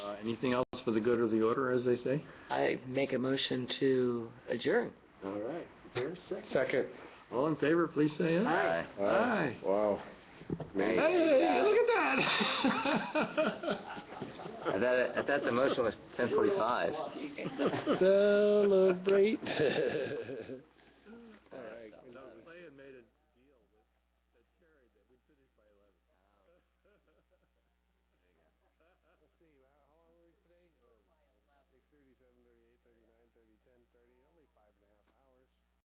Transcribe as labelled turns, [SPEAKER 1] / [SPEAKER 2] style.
[SPEAKER 1] Uh, Anything else for the good of the order, as they say?
[SPEAKER 2] I make a motion to adjourn.
[SPEAKER 1] All right. Is there a second?
[SPEAKER 3] Second.
[SPEAKER 1] All in favor, please say aye.
[SPEAKER 2] Aye.
[SPEAKER 1] Aye.
[SPEAKER 3] Wow.
[SPEAKER 1] Hey,
[SPEAKER 3] Man.
[SPEAKER 1] hey, look at
[SPEAKER 4] I thought, it- I thought the motion was ten forty-five.
[SPEAKER 1] that.
[SPEAKER 3] Celebrate. All right.